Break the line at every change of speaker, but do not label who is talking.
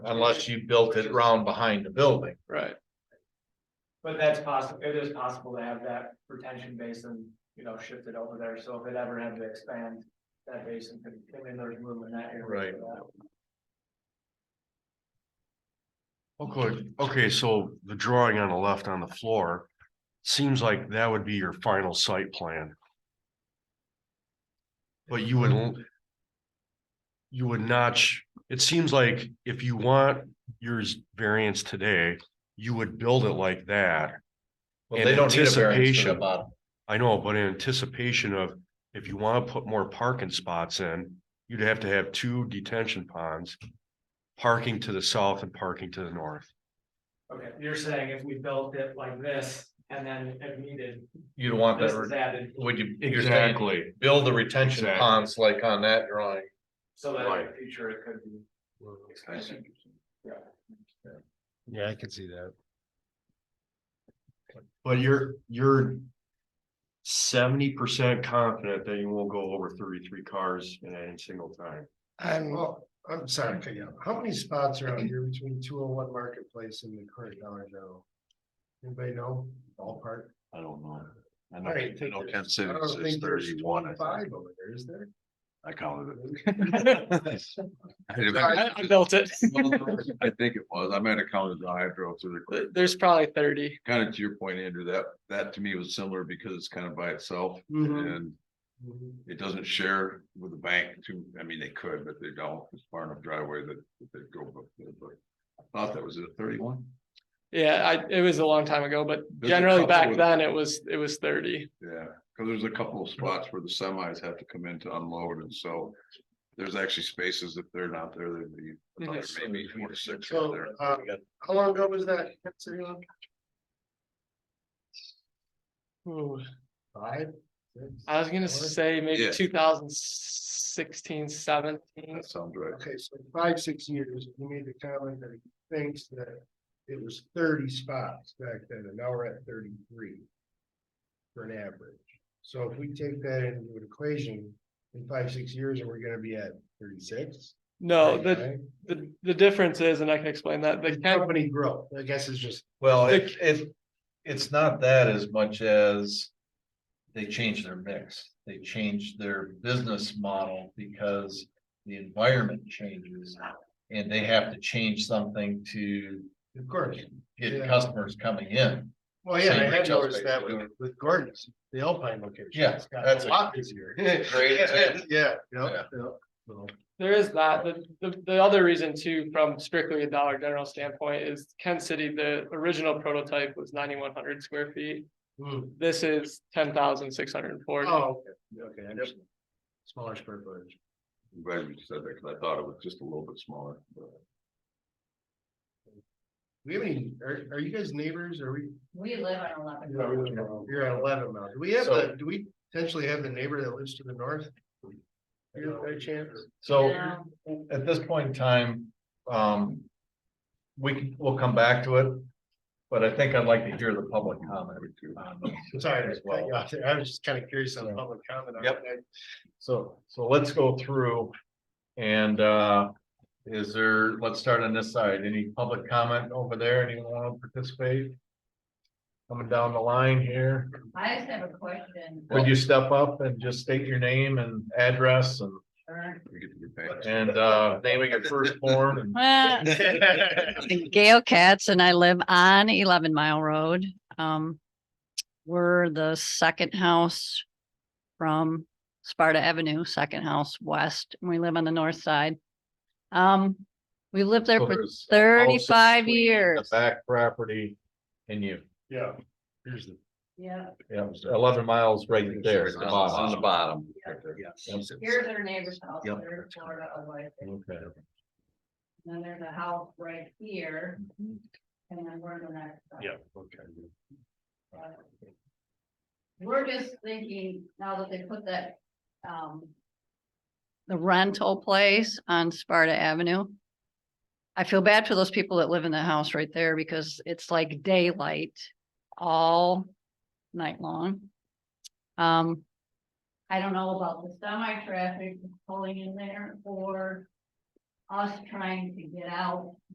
unless you built it round behind the building.
Right,
But that's possible, it is possible to have that retention basin, you know, shifted over there, so if it ever had to expand, that basin could, I mean, there's movement in that area.
Right.
Okay, okay, so the drawing on the left on the floor, seems like that would be your final site plan. But you wouldn't. You would not, sh- it seems like if you want yours variance today, you would build it like that.
Well,
In
they don't need a variance for the
anticipation.
bottom.
I know, but in anticipation of, if you want to put more parking spots in, you'd have to have two detention ponds. Parking to the south and parking to the north.
Okay, you're saying if we built it like this, and then if needed,
You'd want
this
that,
is
re-
added,
would you, you're saying, build the retention
Exactly.
ponds like on that drawing.
so that in the future it could be. expanded.
Yeah, I can see that. But you're, you're seventy percent confident that you won't go over thirty-three cars in any single time.
And well, I'm sorry, cut you off. how many spots are out here between two oh one marketplace and the current Dollar General? Anybody know ballpark?
I don't know. I
I don't
know- I
think
know
there's-
Kansas City
I don't
says
think there's
31, I think.
Five over there, is there?
I counted it.
I, I built it.
I think it was, I might have counted the I drove through the
There- There's probably thirty.
kind of to your point, Andrew, that, that to me was similar because it's kind of by itself
Mm-hmm.
Mm-hmm.
Mhm.
and it doesn't share with the bank too. I mean, they could, but they don't. It's far enough driveway that, that they go, but, but I thought that was a thirty-one.
Yeah, I, it was a long time ago, but
a
generally back
couple-
then it was, it was thirty.
Yeah, because there's a couple of spots where the semis have to come in to unload and so there's actually spaces if they're not there, there'd be another
Mhm.
maybe four to six out
So,
there.
uh, how long ago was that? Considering like
Ooh,
Five? six,
I was gonna
four?
say maybe
Yeah.
2016, 17.
That sounds right.
Okay, so five, six years, you made the comment that he thinks that it was thirty spots back then, and now we're at thirty-three. For an average, so if we take that into an equation, in five, six years, are we gonna be at thirty-six?
No, the, the, the difference is, and I can explain that, the county,
Company growth, I guess is just,
Well, it, it, it's not that as much as. They changed their mix, they changed their business model because the environment changes. And they have to change something to
of course,
get
Yeah.
customers coming in.
well, yeah,
Same
I had
retail
noticed
space
that
we're
with,
doing.
with Gordon's, the Alpine location.
Yeah,
It's gotten
that's
A
a-
lot busier.
Great example.
Yeah, yeah,
Yeah.
yeah. So-
there is that. The, the, the other reason too, from strictly a Dollar General standpoint is Kent City, the original prototype was ninety-one hundred square feet.
Hmm.
This is ten thousand six hundred and forty.
Oh, okay, okay, I understand. Smaller square footage.
I'm glad you said that because I thought it was just a little bit smaller. but-
Do we have any, are, are you guys neighbors? Are we?
We live on eleven.
You're at eleven now. Do we have,
So-
the? do we potentially have the neighbor that lives to the north? You know, by chance?
So
No.
at this point in time, um. We can, we'll come back to it, but I think I'd like to hear the public comment. on this
Sorry,
as
to cut
well.
you off there. I was just kind of curious on the public comment. on
Yep.
that.
So, so let's go through and, uh, is there, let's start on this side. Any public comment over there? Anyone want to participate? Coming down the line here,
I just have a question.
would you step up and just state your name and address and,
We get to get back.
and, uh, naming your firstborn and
Uh, Gail Katz and I live on Eleven Mile Road. Um, we're the second house from Sparta Avenue, second house west, and we live on the north side. Um, we lived there
So
for
there's a house
thirty-five
between the
years.
Back property and you,
Yeah. Here's the.
Yeah,
yeah, eleven miles right there. at the
On the
bottom.
bottom.
here's their neighbor's house,
Yep.
they're Florida away. And
Okay,
Then there's a house right here. And then we're the next. house.
okay.
We're just thinking, now that they put that, um,
The rental place on Sparta Avenue. I feel bad for those people that live in that house right there because it's like daylight all night long. Um,
I don't know about the semi traffic pulling in there or us trying to get out